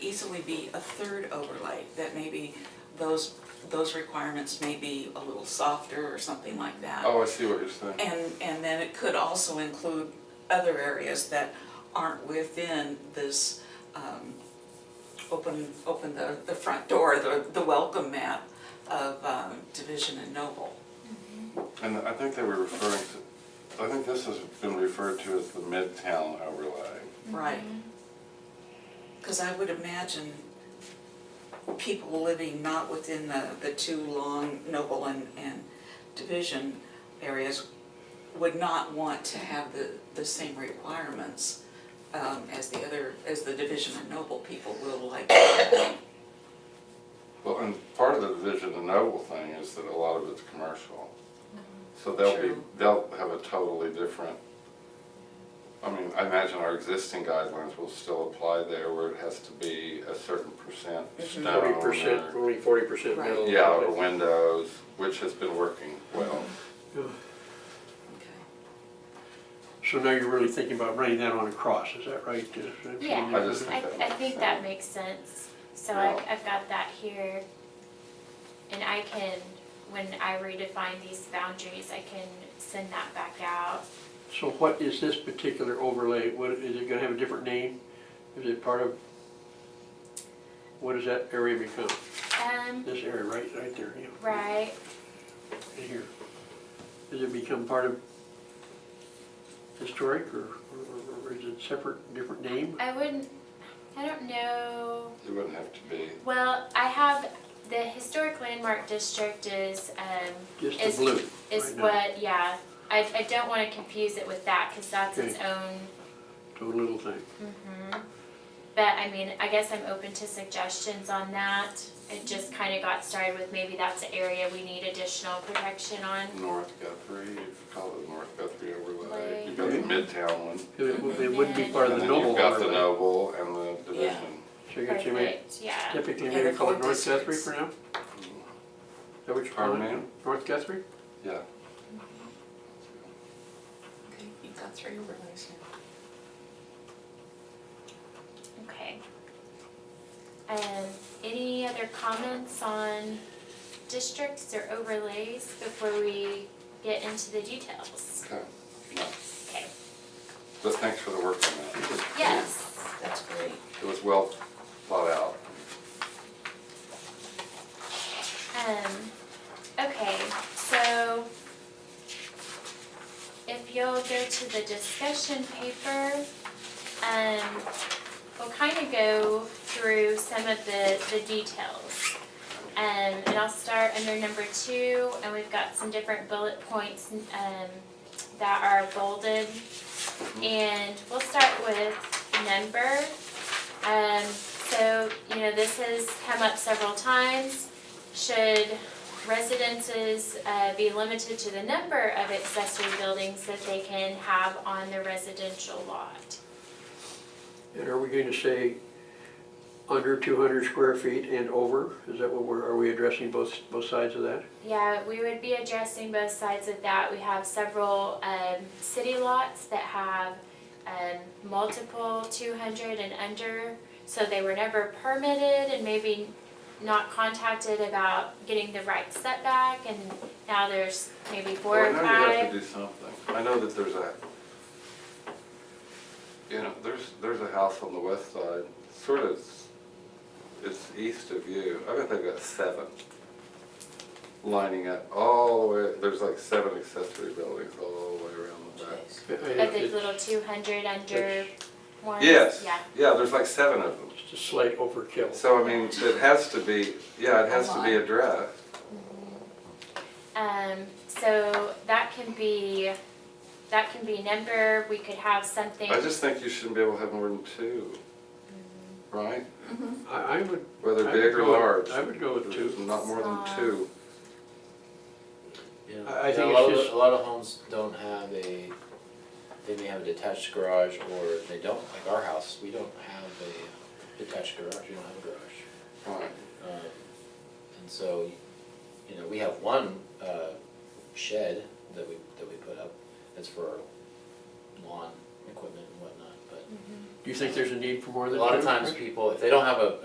easily be a third overlay, that maybe those, those requirements may be a little softer or something like that. Oh, I see what you're saying. And, and then it could also include other areas that aren't within this, um, open, open the, the front door, the, the welcome map of, um, Division and Noble. And I think they were referring to, I think this has been referred to as the Midtown overlay. Right. Because I would imagine people living not within the, the two long Noble and, and Division areas would not want to have the, the same requirements um, as the other, as the Division and Noble people will like. Well, and part of the Vision and Noble thing is that a lot of it's commercial. So they'll be, True. they'll have a totally different, I mean, I imagine our existing guidelines will still apply there where it has to be a certain percent stone Forty Uh, percent, or- only forty percent Right. metal. Yeah, or windows, which has been working well. Okay. So now you're really thinking about running that on a cross, is that right? Is that- Yeah. I just I, think that I makes think sense. that makes sense. So Yeah. I've, I've got that here. And I can, when I redefine these boundaries, I can send that back out. So what is this particular overlay, what, is it gonna have a different name? Is it part of, what does that area become? Um, This area right, right there, yeah. right, In here. Does it become part of historic or, or- or is it separate, different name? I wouldn't, I don't know. It wouldn't have to be. Well, I have, the historic landmark district is, um, Just the It's- blue is right now, what, yeah. I, I don't wanna confuse it with that, cause that's its own the little thing. Mhm. But I mean, I guess I'm open to suggestions on that. It just kind of got started with maybe that's an area we need additional protection on. North Guthrie, you could call it North Guthrie overlay. Right. You've got the Midtown one. It would- Mm-hmm. it wouldn't be part of And the then noble you've got the overlay. Noble and the Yeah. Division. So you're gonna say maybe Perfect, yeah. Typically, Yeah, they're maybe call it called North Guthrie districts. for now? Is that what you're Pardon calling it? me? North Guthrie? Yeah. Okay, you've got three overlays now. Okay. Um, any other comments on districts or overlays before we get into the details? Okay. No. Okay, But thanks for the work on that. yes. That's great. It was well thought out. Um, okay, so if you'll go to the discussion paper, um, we'll kind of go through some of the, the details. Um, and I'll start under number two, and we've got some different bullet points, um, that are bolded. And we'll start with number. Um, so, you know, this has come up several times. Should residences uh, be limited to the number of accessory buildings that they can have on their residential lot? And are we going to say under two hundred square feet and over? Is that what we're, are we addressing both, both sides of that? Yeah, we would be addressing both sides of that. We have several um, city lots that have um, multiple 200 and under, so they were never permitted and maybe not contacted about getting the right setback, and now there's maybe four or Well, I know you have five. to do something. I know that there's a, you know, there's, there's a house on the west side, sort of, it's east of you. I bet they've got seven lining up all the way, there's like seven accessory buildings all the way around the back. Jeez. I- I- But the it's little 200 under ones? Yes, Yeah. yeah, there's like seven of them. Just a slight overkill. So I mean, it has to be, yeah, it has to A be lot. addressed. Um, so that can be, that can be number, we could have something. I just think you shouldn't be able to have more than two, right? I, I would. Whether I would big or go with- large. I would go with There's two. Not more than two. Yeah, I- I Yeah, think a it's lot of, just- the- a lot of homes don't have a, they may have a detached garage or they don't, like our house, we don't have a detached garage, we don't have a garage. Right. Um, And so, you know, we have one uh, shed that we, that we put up, that's for our lawn equipment and whatnot, but Do you think there's a need for more a than two? lot of times people, if they don't have a,